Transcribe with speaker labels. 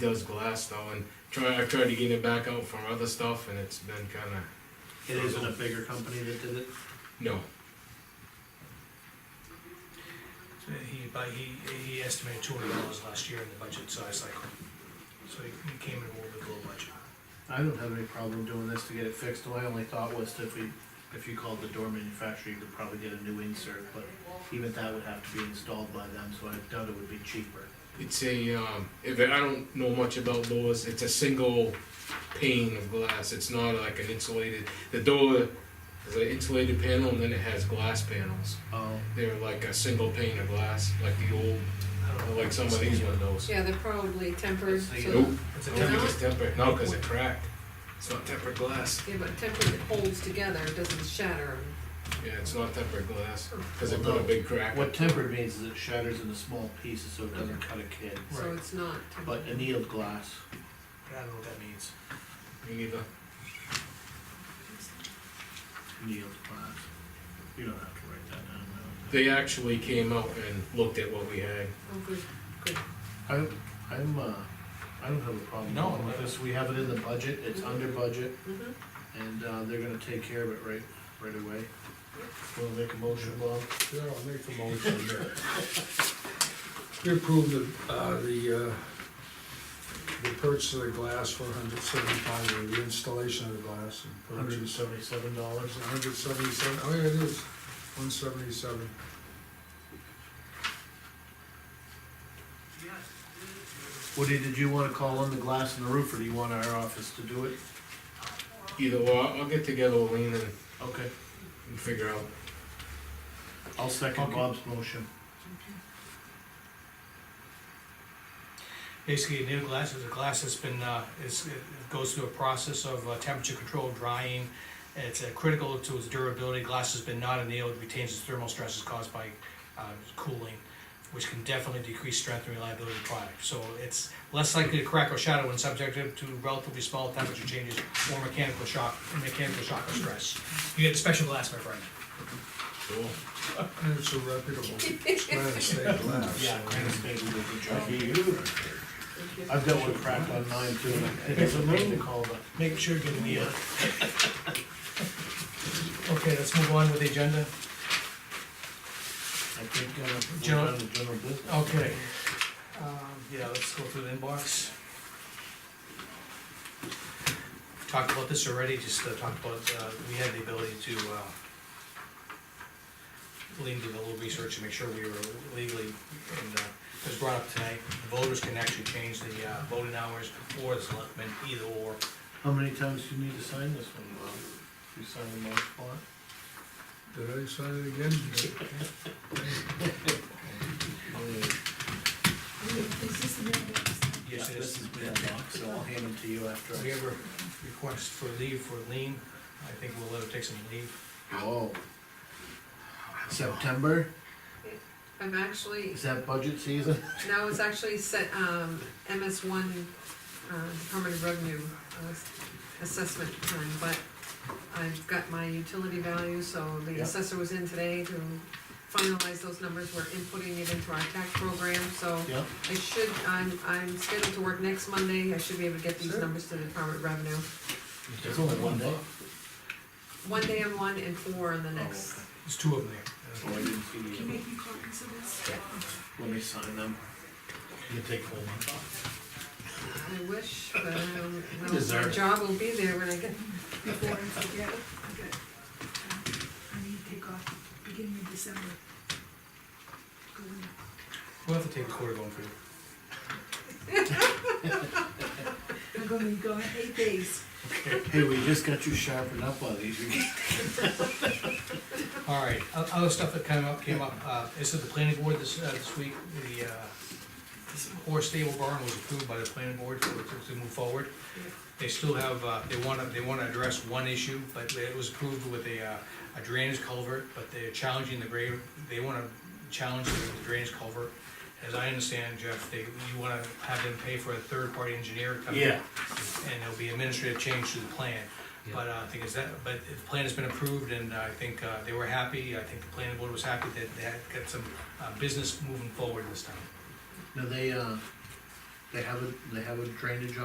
Speaker 1: does glass though, and try, I've tried to get it back out for other stuff, and it's been kinda,
Speaker 2: It isn't a bigger company that did it?
Speaker 1: no.
Speaker 3: So He, but he, he estimated two hundred dollars last year in the budget size cycle. So he he came in a little bit below budget.
Speaker 2: I don't have any problem doing this to get it fixed, my only thought was that if we, if you called the door manufacturer, you could probably get a new insert, but even that would have to be installed by them, so I doubt it would be cheaper.
Speaker 1: It's a, um, if, I don't know much about doors, it's a single pane of glass, it's not like an insulated, the door is an insulated panel, and then it has glass panels.
Speaker 2: Oh,
Speaker 1: They're like a single pane of glass, like the old,
Speaker 3: I don't know.
Speaker 1: like some of these windows.
Speaker 4: Yeah, they're probably tempered,
Speaker 2: Let's see.
Speaker 4: so,
Speaker 1: Nope,
Speaker 3: It's
Speaker 1: I
Speaker 3: a
Speaker 1: don't think
Speaker 3: temporary,
Speaker 1: it's tempered, no, cause it cracked, it's not tempered glass,
Speaker 4: yeah, but tempered, it holds together, it doesn't shatter.
Speaker 1: yeah, it's not tempered glass, cause it put a big crack.
Speaker 2: what tempered means is it shatters into small pieces, so it doesn't cut a kid,
Speaker 4: So
Speaker 3: Right.
Speaker 4: it's not,
Speaker 2: but annealed glass,
Speaker 3: I don't know what that means.
Speaker 1: You need the-
Speaker 2: annealed glass. You don't have to write that down, I
Speaker 1: They actually came out and looked at what we had.
Speaker 4: oh, good, good.
Speaker 2: don't think. I, I'm, uh, I don't have a problem
Speaker 3: No,
Speaker 2: with
Speaker 3: no.
Speaker 2: this, we have it in the budget, it's under budget,
Speaker 4: Mhm.
Speaker 2: and, uh, they're gonna take care of it right, right away. Wanna make a motion, Bob?
Speaker 5: Yeah, I'll make the motion there. We approve the, uh, the, uh, the purchase of the glass for hundred seventy-five, or the installation of the glass and
Speaker 2: Hundred and
Speaker 5: purchase.
Speaker 2: seventy-seven dollars.
Speaker 5: Hundred seventy-seven, oh yeah, it is, one seventy-seven.
Speaker 2: Woody, did you wanna call on the glass in the roof, or do you want our office to do it?
Speaker 1: Either way, I'll get together with Lean and-
Speaker 2: Okay,
Speaker 1: and figure out.
Speaker 2: I'll second
Speaker 3: Okay.
Speaker 2: Bob's motion.
Speaker 3: Basically, new glass is a glass that's been, uh, is, it goes through a process of uh, temperature control drying. It's uh, critical to its durability, glass has been not annealed, retains its thermal stresses caused by, uh, cooling, which can definitely decrease strength and reliability of the product. So it's less likely to crack or shatter when subjected to relatively small temperature changes or mechanical shock, mechanical shock or stress. You get special glass, my friend.
Speaker 1: Cool.
Speaker 5: And it's a reputable, Granite State glass.
Speaker 2: Granite State will do the job.
Speaker 4: Thank you.
Speaker 2: I've got one cracked on mine too, and it's a main to call, but
Speaker 3: Make sure you give me a. Okay, let's move on with the agenda.
Speaker 2: I think, uh, we're
Speaker 3: General-
Speaker 2: done with general business.
Speaker 3: Okay. Um, Yeah, let's go through the inbox. We've Talked about this already, just uh, talked about, uh, we had the ability to, uh, lean to the little research to make sure we were legally, and, uh, it was brought up tonight, voters can actually change the, uh, voting hours or the selectmen, either or.
Speaker 2: How many times do you need to sign this one, Bob? You sign the most part?
Speaker 5: Did I sign it again?
Speaker 3: Yes, it is.
Speaker 2: This is mailbox, so I'll hand them to you after.
Speaker 3: If we
Speaker 2: I-
Speaker 3: have a request for leave for lean, I think we'll let her take some leave.
Speaker 2: Oh. September,
Speaker 4: I'm actually,
Speaker 2: is that budget season?
Speaker 4: now it's actually set, um, MS one, uh, Department of Revenue, uh, assessment time, but I've got my utility value, so the
Speaker 2: Yeah.
Speaker 4: assessor was in today to finalize those numbers, we're inputting it into our tax program, so
Speaker 2: Yeah.
Speaker 4: I should, I'm, I'm scheduled to work next Monday, I should be able to get these
Speaker 5: Sure.
Speaker 4: numbers to the Department of Revenue.
Speaker 2: It's only one day.
Speaker 4: One day on one and four on the next.
Speaker 3: There's two of them there.
Speaker 2: Oh, I didn't see the. other.
Speaker 4: me copies of this?
Speaker 2: Let me sign them. You can take home.
Speaker 4: I wish, but I don't know,
Speaker 2: You Oh, deserve
Speaker 4: my
Speaker 2: it.
Speaker 4: job will be there when I get,
Speaker 6: before I forget. okay. I need to take off beginning of December. Go in.
Speaker 3: We'll have to take a quarter going for you.
Speaker 6: I'm gonna be gone eight days.
Speaker 2: Hey, we just got you sharpened up on these.
Speaker 3: All right, o- other stuff that came up, came up, uh, this is the planning board this, uh, this week, the, uh, horse stable barn was approved by the planning board to, to move forward. They still have, uh, they wanna, they wanna address one issue, but it was approved with a, uh, a drainage culvert, but they're challenging the grave, they wanna challenge the drainage culvert. As I understand, Jeff, they, you wanna have them pay for a third-party engineer to come in. And there'll be administrative change to the plan. But uh, I think is that, but the plan has been approved and I think uh, they were happy, I think the planning board was happy that they had got some uh, business moving forward this time.
Speaker 2: Now, they, uh, They have a, they have a drainage